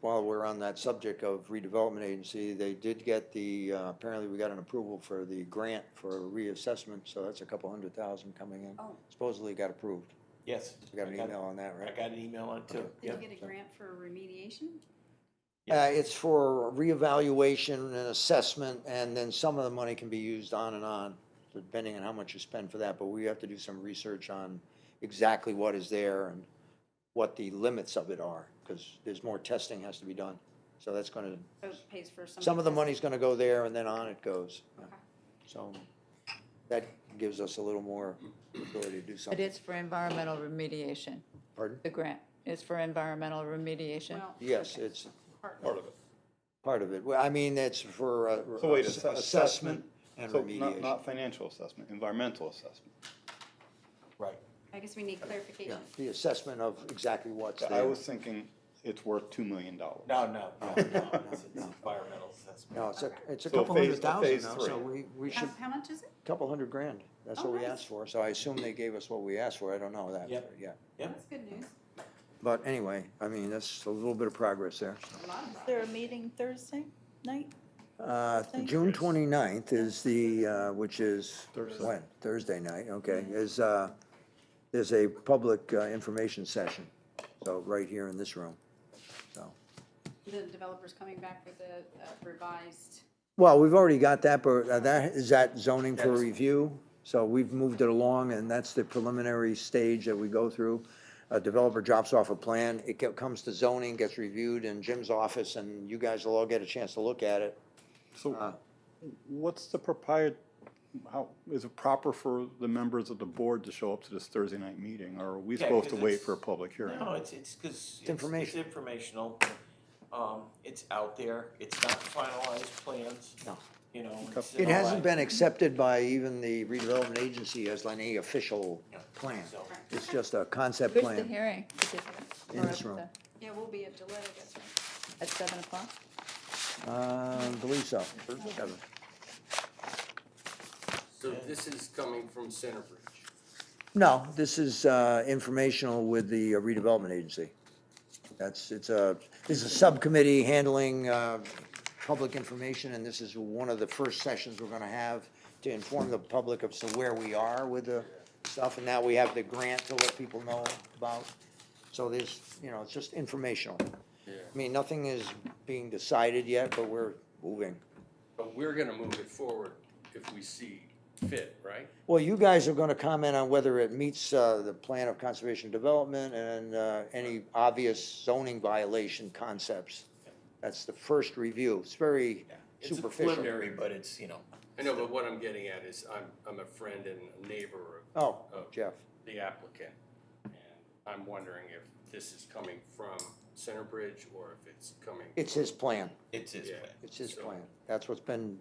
while we're on that subject of redevelopment agency, they did get the, uh, apparently we got an approval for the grant for reassessment, so that's a couple hundred thousand coming in. Oh. Supposedly got approved. Yes. We got I an email on that, I right? got an email on it too, Okay. Did yep. you get a grant for remediation? Uh, it's for reevaluation and assessment, and then some of the money can be used on and on, depending on how much you spend for that, but we have to do some research on exactly what is there and what the limits of it are, because there's more testing has to be done. So that's gonna, So Oh, it pays for some. some of the this? money's gonna go there and then on it goes. Okay. So that gives us a little more ability to do But something. it's for environmental remediation, Pardon? the grant is for environmental remediation. Well, Yes, okay. it's Part- part of it. part of it. Well, I mean, it's for uh, So wait, ass- ass- assessment? and So not, remediation. not financial assessment, environmental assessment. Right. I guess we need Yeah, clarification. the assessment of exactly what's I there. was thinking it's worth two million dollars. No, no, no, no, it's it's environmental No, assessment. it's a, it's a So couple phase- hundred thousand phase now, so we, three. we How, should, how much is it? couple hundred grand. That's Oh, what we nice. asked for, so I assume they gave us what we asked for, I don't know that, Yep. yeah. Yep, That's good news. But anyway, I mean, that's a little bit of progress there. so. A lot of Is progress. there a meeting Thursday night? Uh, Thank June you. twenty-ninth is the, uh, which is, Thursday. when? Thursday night, okay, Mm-hmm. is, uh, there's a public uh, information session, so right here in this room, so. The developer's coming back with a a revised, Well, we've already got that, but uh, that, is that zoning for Yes. review? So we've moved it along, and that's the preliminary stage that we go through. A developer drops off a plan, it co- comes to zoning, gets reviewed in Jim's office, and you guys will all get a chance to look at it. So what's the propriet, how, is it proper for the members of the board to show up to this Thursday night meeting? Or are we Yeah, supposed to 'cause wait it's- for a public hearing? no, it's, it's, cause it's, it's information. informational, um, it's out there, it's not finalized plans. No. You know. it's It in a hasn't lag. been accepted by even the redevelopment agency as any official Yeah, plan. so- It's just a concept Where's the plan. hearing? In this room. yeah, we'll be at delay, that's right. At seven o'clock? Uh, believe so. Kevin. So this is coming from Centerbridge. No, this is uh, informational with the uh, redevelopment agency. That's, it's a, this is a subcommittee handling uh, public information, and this is one of the first sessions we're gonna have to inform the public of so where we are with the stuff, and now we have the grant to let people know about. So there's, you know, it's just informational. Yeah. I mean, nothing is being decided yet, but we're moving. But we're gonna move it forward if we see fit, right? Well, you guys are gonna comment on whether it meets, uh, the plan of conservation development and, uh, any obvious zoning violation concepts. That's the first review. It's very Yeah. It's a superficial. preliminary, but it's, you know, I know, but what I'm getting at is I'm, I'm a friend and a neighbor of Oh, Oh. Jeff, the applicant. And I'm wondering if this is coming from Centerbridge or if it's coming. it's his plan. it's his Yeah. plan. It's his So- plan. That's what's been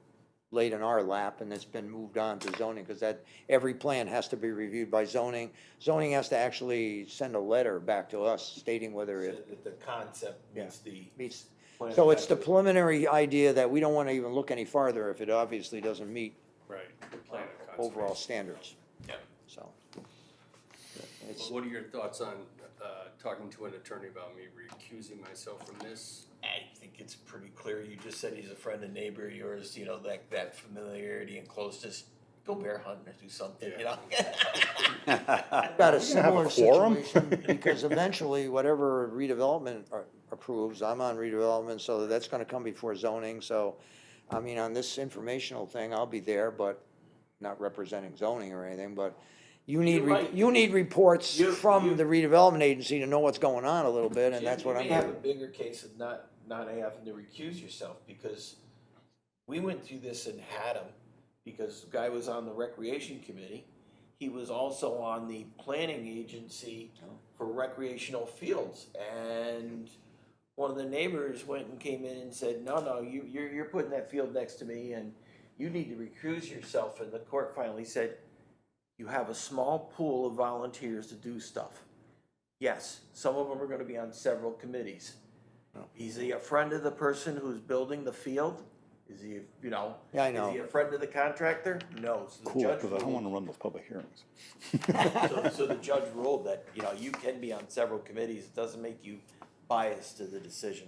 laid in our lap and it's been moved on to zoning, cause that, every plan has to be reviewed by zoning. Zoning has to actually send a letter back to us stating whether So it that the concept meets the. meets plan So it's the of- preliminary idea that we don't want to even look any farther if it obviously doesn't meet Right, the plan of conservation. overall standards, Yeah. so. Well, It's, What are your thoughts on, uh, talking to an attorney about me recusing myself from this? I think it's pretty clear, you just said he's a friend and neighbor of yours, you know, that, that familiarity and closeness, go bear hunting or do something, you know? about a gonna have similar a quorum? situation, because eventually whatever redevelopment a- approves, I'm on redevelopment, so that's gonna come before zoning, so. I mean, on this informational thing, I'll be there, but not representing zoning or anything, but you need, You're re- right. you need reports You- you- from the redevelopment agency to know what's going on a little bit, and You- that's what I'm. You may have a bigger case of not, not having to recuse yourself, because we went through this in Haddam, because the guy was on the recreation committee. He was also on the planning agency Oh. for recreational fields, and one of the neighbors went and came in and said, no, no, you, you're, you're putting that field next to me, and you need to recuse yourself, and the court finally said, you have a small pool of volunteers to do stuff. Yes, some of them are gonna be on several committees. Is he a friend of the person who's building the field? Is he, you know? Yeah, I Is he know. a friend of the contractor? No, so the Cool, judge because I don't ruled- want to run those public hearings. So, so the judge ruled that, you know, you can be on several committees, it doesn't make you biased to the decision.